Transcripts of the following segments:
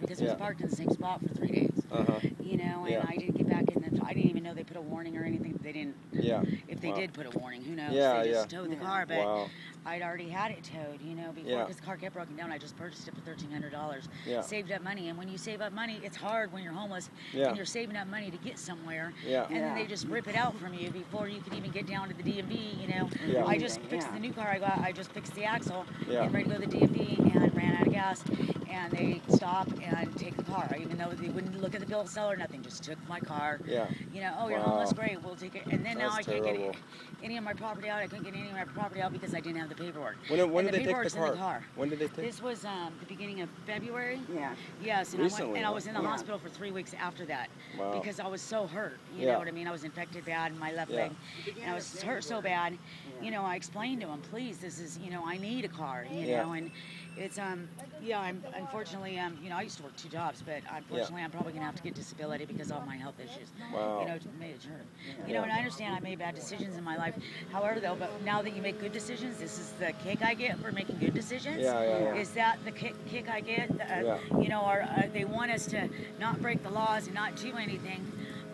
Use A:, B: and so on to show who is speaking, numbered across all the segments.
A: because it was
B: Yeah.
A: parked in the same spot for three days.
B: Uh-huh.
A: You know, and
B: Yeah.
A: I didn't get back in the. I didn't even know they put a warning or anything. They didn't.
B: Yeah.
A: If they
B: Wow.
A: did put a warning, who knows?
B: Yeah,
A: they just
B: yeah.
A: towed the car, but
B: Wow.
A: I'd already had it towed, you know, before
B: Yeah.
A: because the car kept broken down. I just purchased it for thirteen hundred dollars.
B: Yeah.
A: Saved up money, and when you save up money, it's hard when you're homeless
B: Yeah.
A: and you're saving up money to get somewhere.
B: Yeah.
A: And then they
C: Yeah.
A: just rip it out from you before you can even get down to the DMV. You know,
B: Yeah.
A: I just fixed
C: Yeah.
A: the new car I got. I just fixed the axle
B: Yeah.
A: and ready to go to the DMV, and ran out of gas. And they stop and take the car, even though they wouldn't look at the bill of sale or nothing. Just took my car.
B: Yeah.
A: You know, oh, you're
B: Wow.
A: homeless, great, we'll take it. And then now I
B: That's
A: can't
B: terrible.
A: get any of my property out. I couldn't get any of my property out because I didn't have the paperwork.
B: When, did- when
A: And
B: did they take the
A: paperwork's in
B: car? When did they take?
A: This was um, the beginning of February.
C: Yeah.
A: Yes, and, I, went,
B: Recently,
A: and I
B: huh?
A: was in the
C: Yeah.
A: hospital for three weeks after that
B: Wow.
A: because I was so hurt. You
B: Yeah.
A: know what I mean? I was infected bad in my left
B: Yeah.
A: leg, and I was hurt so bad. You know, I explained to him, please, this is you know, I need a car. You
B: Yeah.
A: know, and it's um, yeah, I'm unfortunately um, you know, I used to work two jobs, but unfortunately, I'm probably gonna have to get disability because of my health issues.
B: Wow.
A: You know, to- made it hurt. You know, and I understand I made bad decisions in my life. However, though, but now that you make good decisions, this is the kick I get for making good decisions.
B: Yeah, yeah, yeah.
A: Is that the kick, kick I get? Uh,
B: Yeah.
A: You know, or uh, they want us to not break the laws and not do anything,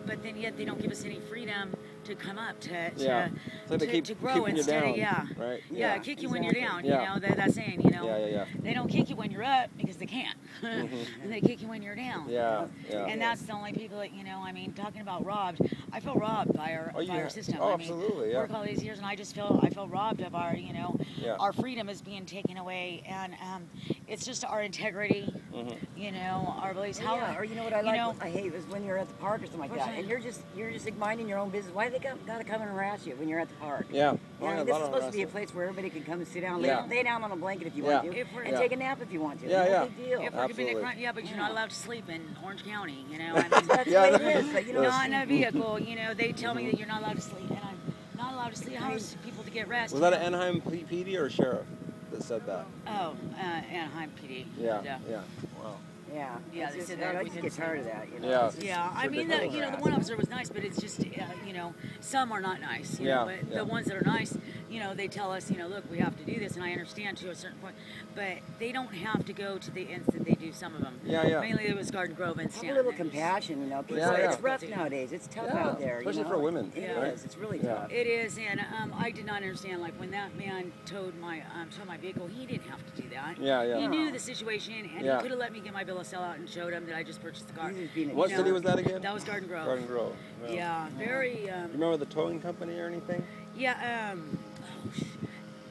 A: but then yet they don't give us any freedom to come up to to,
B: Yeah. So they
A: to,
B: keep
A: to grow
B: keeping you
A: instead
B: down,
A: of yeah
B: right?
A: yeah,
C: Yeah,
A: kick you when you're down
C: exactly.
B: Yeah.
A: you know that, that saying you know
B: Yeah, yeah, yeah.
A: they don't kick you when you're up because they can't and they kick you when you're down
B: Yeah, yeah.
A: and that's the only people that you know I mean talking about robbed I feel robbed by our
B: Oh, you
A: by our
B: have-
A: system
B: oh,
A: I mean
B: absolutely, yeah.
A: work all these years and I just feel I feel robbed of our you know
B: Yeah.
A: our freedom is being taken away and um, it's just our integrity
B: Mm-hmm.
A: you know our beliefs how
C: Oh, Yeah, or you know what I like?
A: know,
C: I hate is when you're at the park or something like
A: Or
C: that,
A: something.
C: and you're just you're just like minding your own business. Why do they got, gotta come and harass you when you're at the park?
B: Yeah.
C: You know,
B: Yeah, a
C: this
B: lot
C: is
B: of
C: supposed to be a
B: harassment.
C: place where everybody can come and sit down,
B: Yeah.
C: lay, lay down on a blanket if you
B: Yeah.
C: want to,
A: If we're-
C: and
A: Yeah.
C: take a nap if you want to.
B: Yeah,
C: no
B: yeah.
C: Big deal.
A: if we're committing
B: Absolutely.
A: a crime, yeah, but you're not allowed to sleep in Orange County, you know. I mean,
C: That's
B: Yeah,
C: what it
B: that-
C: is. But you know,
A: not in a vehicle, you know. They tell me that you're not allowed to sleep, and I'm not allowed to sleep. How are people to get rest?
B: Was that an Anaheim P- PD or sheriff that said that?
A: Oh, uh, Anaheim PD.
B: Yeah.
A: Yeah.
B: Yeah. Wow.
C: yeah,
A: Yeah,
C: it's
A: they
C: just-
A: said that
C: I
A: we
C: just
A: didn't
C: get
A: say
C: tired of that. You know?
B: Yeah.
C: It's just-
A: Yeah, I mean, the, you know, the one officer was nice, but it's just, uh, you know, some are not nice. You know,
B: Yeah,
A: but
B: yeah.
A: the ones that are nice, you know, they tell us, you know, look, we have to do this, and I understand to a certain point, but they don't have to go to the ends that they do. Some of them.
B: Yeah, yeah.
A: Mainly it was Garden Grove and
C: Have a
A: Stanton.
C: little compassion, you know. People,
B: Yeah,
C: It's
B: yeah.
C: rough nowadays. It's tough
B: Yeah,
C: out there. you
B: especially
C: know?
B: for women,
C: It
B: right?
C: is. It's really
B: Yeah.
C: tough.
A: It is, and um, I did not understand. Like when that man towed my um, towed my vehicle, he didn't have to do that.
B: Yeah, yeah.
A: He knew the situation, and
B: Yeah.
A: he could have let me get my bill of sale out and showed him that I just purchased the car.
C: He's being a
A: You
B: What
C: know,
B: city was that again?
A: That was Garden Grove.
B: Garden Grove.
A: Yeah, very.
B: You
A: Um,
B: remember the towing company or anything?
A: yeah. Um, oh, sh-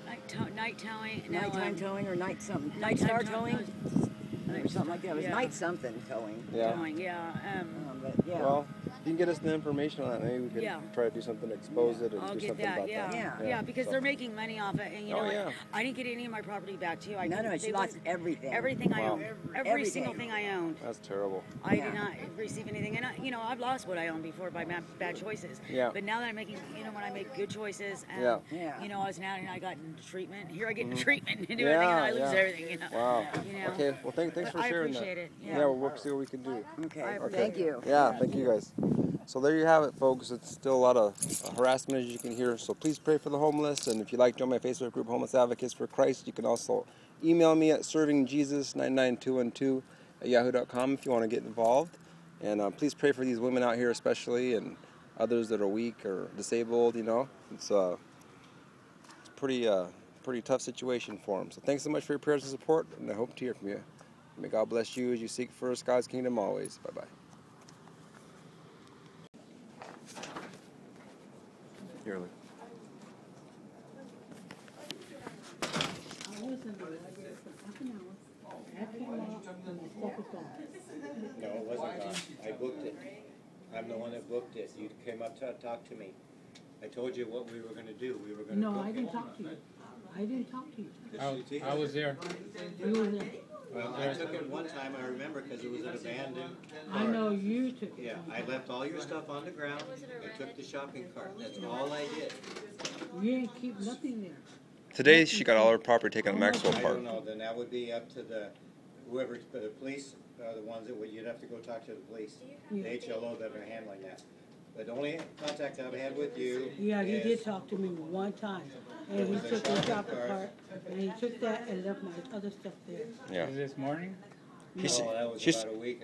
A: night, tow- night towing. no,
C: Nighttime
A: um,
C: towing or night something. Night
A: nighttime
C: star
A: tow-
C: towing? Or something like that. It was
A: Yeah.
C: night something towing.
B: Yeah.
A: Towing. Yeah. Um,
C: Um, but yeah.
B: Well, you can get us the information on it. Maybe we can
A: Yeah.
B: try to do something to expose it and
A: I'll
B: do
A: get
B: something
A: that.
B: about
A: Yeah.
B: that.
A: yeah,
C: Yeah.
A: because
B: So-
A: they're making money off it, and you know,
B: Oh,
A: what?
B: yeah.
A: I didn't get any of my property back too. I
C: no, no,
A: couldn't-
C: she
A: they
C: lost
A: wouldn't-
C: everything.
A: everything I
B: Wow.
A: owned. Every,
C: Everything.
A: single thing I owned.
B: That's terrible.
A: I did
C: Yeah.
A: not receive anything, and I, you know I've lost what I owned before by bad, bad choices.
B: Yeah.
A: But now that I'm making, you know, when I make good choices, um,
B: Yeah. Mm-hmm.
C: Yeah.
A: You know, I was now and I got into treatment. Here I get into treatment and do
B: Yeah,
A: everything, and I lose
B: yeah.
A: everything. You know.
B: Wow.
A: You know.
B: Okay. Well, thank, thanks
A: But
B: for
A: I
B: sharing
A: appreciate
B: that.
A: it,
B: Yeah.
A: yeah.
B: we'll work, see what we can do.
C: Okay.
A: I
B: Okay.
C: Thank you.
B: Yeah, thank you guys. So there you have it, folks. It's still a lot of uh, harassment, as you can hear. So please pray for the homeless. And if you like, join my Facebook group, Homeless Advocates for Christ. You can also email me at servingjesus99212 at yahoo.com if you want to get involved. And uh, please pray for these women out here, especially, and others that are weak or disabled. You know, it's uh, it's pretty uh, pretty tough situation for them. So thanks so much for your prayers and support, and I hope to hear from you. May God bless you as you seek first God's kingdom always. Bye bye. Here, look.
D: No, it wasn't gone. I booked it. I'm the one that booked it. You came up to talk to me. I told you what we were gonna do. We were gonna book it.
E: No, I didn't talk to you. I didn't talk to you.
F: I, I was there.
E: You were there.
D: Well, I took it one time, I remember, because it was an abandoned.
E: I know you took it.
D: Yeah, I left all your stuff on the ground. I took the shopping cart. That's all I did.
E: You ain't keep nothing there.
B: Today she got all her property taken at Maxwell
D: I
B: Park.
D: don't know, then that would be up to the, whoever, the police, are the ones that would, you'd have to go talk to the police. The
E: Yeah.
D: HLO that are handling that. But the only contact I've had with you
E: Yeah, he
D: is-
E: did talk to me one time. And he took the shopping cart, and he took that and left my other stuff there.
B: Yeah.
F: Is this morning?
D: No, oh, that was
B: she's-
D: about a week